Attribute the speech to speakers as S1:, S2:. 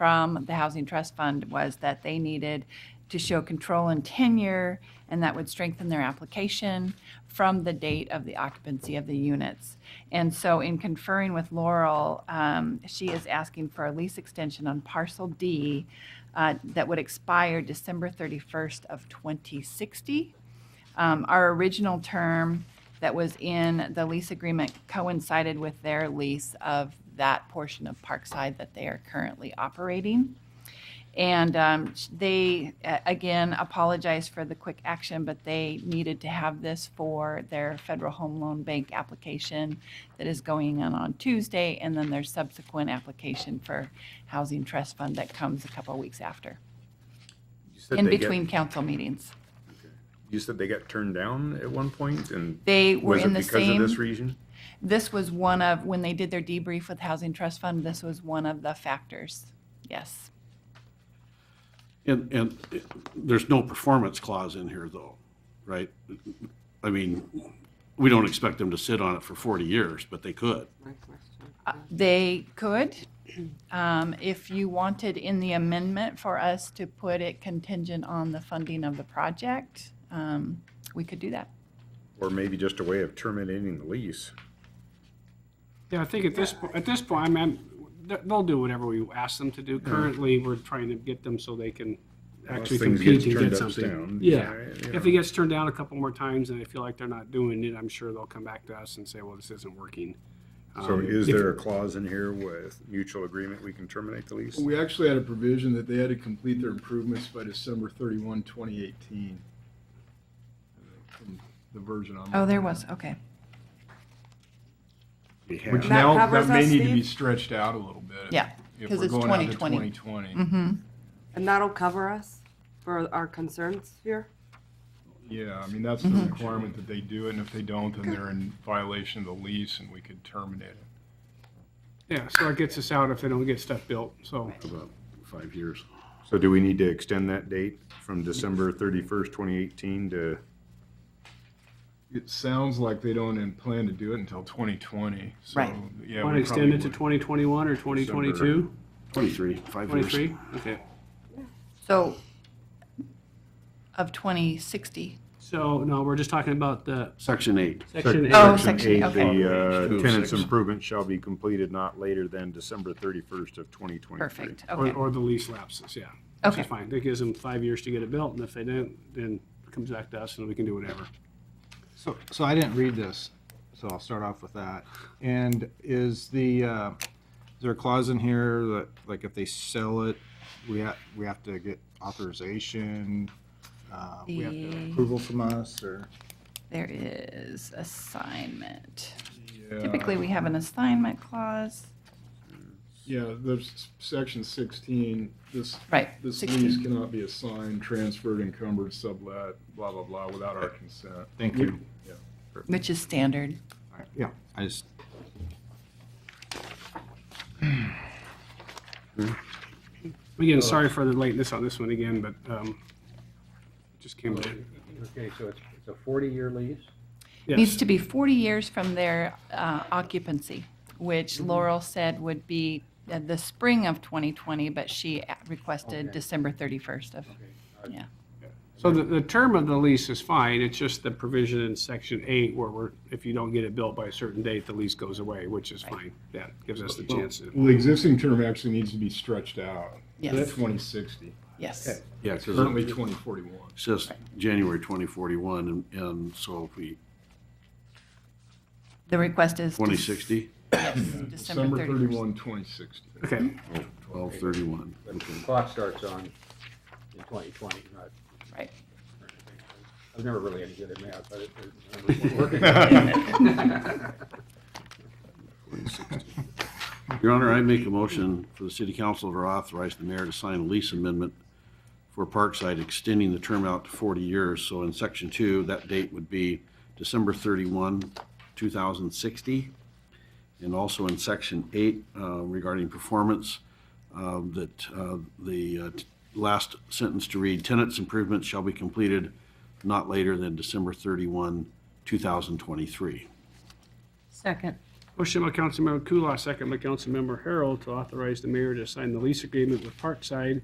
S1: from the Housing Trust Fund was that they needed to show control and tenure, and that would strengthen their application from the date of the occupancy of the units. And so in conferring with Laurel, um, she is asking for a lease extension on parcel D uh, that would expire December 31st of 2060. Um, Our original term that was in the lease agreement coincided with their lease of that portion of Parkside that they are currently operating. And um, sh- they, uh, again, apologize for the quick action, but they needed to have this for their Federal Home Loan Bank application that is going in on Tuesday, and then their subsequent application for Housing Trust Fund that comes a couple of weeks after,
S2: You said
S1: in
S2: they get-
S1: between council meetings.
S2: You said they got turned down at one point and
S1: They were
S2: was
S1: in
S2: it
S1: the
S2: because of
S1: same.
S2: this reason?
S1: This was one of, when they did their debrief with Housing Trust Fund, this was one of the factors. Yes.
S3: And, and it- there's no performance clause in here, though, right? I mean, we don't expect them to sit on it for 40 years, but they could.
S4: My question.
S1: Uh, They could, um, if you wanted in the amendment for us to put it contingent on the funding of the project, um, we could do that.
S2: Or maybe just a way of terminating the lease?
S5: Yeah, I think at this, po- at this point, I mean, th- they'll do whatever we ask them to do. Currently, we're trying to get them so they can actually
S2: Unless things get
S5: compete and
S2: turned
S5: get
S2: upside
S5: something.
S2: down,
S5: Yeah,
S2: you know.
S5: if it gets turned down a couple more times and they feel like they're not doing it, I'm sure they'll come back to us and say, well, this isn't working.
S2: So
S5: Um,
S2: is
S5: if-
S2: there a clause in here with mutual agreement we can terminate the lease?
S6: We actually had a provision that they had to complete their improvements by December 31, 2018. From The version on.
S1: Oh, there was, okay.
S2: We
S6: Which
S2: have.
S4: That
S6: now,
S4: covers
S6: that may
S4: us,
S6: need to be
S4: Steve?
S6: stretched out a little bit. if-
S1: Yeah,
S6: if
S1: 'cause
S6: we're
S1: it's Mm-hmm.
S6: going out to
S1: 2020.
S6: 2020,
S4: And that'll cover us for our concerns here?
S6: yeah, I mean, that's the
S1: Mm-hmm.
S6: requirement that they do it, and if they don't, then they're in violation of the lease and we could terminate it.
S5: Yeah, so it gets us out if they don't get stuff built, so.
S3: About five years.
S2: So do we need to extend that date from December thirty-first, twenty eighteen to,
S6: It sounds like they don't in- plan to do it until 2020, so.
S1: Right.
S6: yeah,
S5: Want
S6: we
S5: to extend
S6: probably
S5: it to
S6: would.
S5: 2021 or 2022?
S3: 23, five years.
S5: 23? Okay.
S1: So of 2060.
S5: So, no, we're just talking about the
S3: Section eight.
S5: section eight.
S1: Oh,
S2: Section
S1: section,
S2: eight,
S1: okay.
S2: The
S3: Two
S2: uh,
S3: of
S2: tenants
S3: six.
S2: improvement shall be completed not later than December thirty-first of twenty twenty-three.
S1: Perfect,
S5: Or,
S1: okay.
S5: or the lease lapses, yeah. Which is
S1: Okay.
S5: fine. That gives them five years to get it built, and if they don't, then it comes back to us and we can do whatever.
S7: So, so I didn't read this, so I'll start off with that. And is the, uh, is there a clause in here that, like, if they sell it, we have, we have to get authorization? uh, We have
S1: The-
S7: to approval from us, or?
S1: There is assignment.
S6: Yeah.
S1: Typically, we have an assignment clause.
S6: Yeah, there's section 16, this,
S1: Right,
S6: this
S1: 16.
S6: lease cannot be assigned, transferred, encumbered, sublet, blah, blah, blah, without our consent.
S7: Thank you.
S1: Which is standard.
S7: All right, Yeah, I just,
S5: Again, sorry for the lateness on this one again, but um, just came to.
S8: Okay, so it's, it's a forty-year lease?
S1: needs
S5: Yes,
S1: to be 40 years from their uh, occupancy, which Laurel said would be uh, the spring of 2020, but she a- requested
S8: Okay.
S1: December 31st of, yeah.
S5: so the, the term of the lease is fine, it's just the provision in section eight where we're, if you don't get it built by a certain date, the lease goes away, which is fine. That gives us the chance to.
S6: Well, the existing term actually needs to be stretched out.
S1: Yes.
S6: To 2060,
S1: Yes.
S3: Yeah, because
S6: currently
S3: it
S6: 2041.
S3: says January 2041, and, and so if we,
S1: The request is.
S3: 2060,
S1: Yes,
S6: December
S1: December 31st.
S6: 31, 2060.
S5: Okay,
S3: 1231. Okay.
S8: Clock starts on in twenty twenty, not.
S1: Right.
S8: I'm never really any good at math, but it- it- I'm working.
S3: Your Honor, I make a motion for the city council to authorize the mayor to sign a lease amendment for Parkside extending the term out to 40 years. So in section two, that date would be December 31, 2060. And also in section eight uh, regarding performance, um, that uh, the uh, t- last sentence to read, tenants improvements shall be completed not later than December 31, 2023.
S9: Second.
S5: Motion by Councilmember Kulas, second by Councilmember Harold, to authorize the mayor to sign the lease agreement with Parkside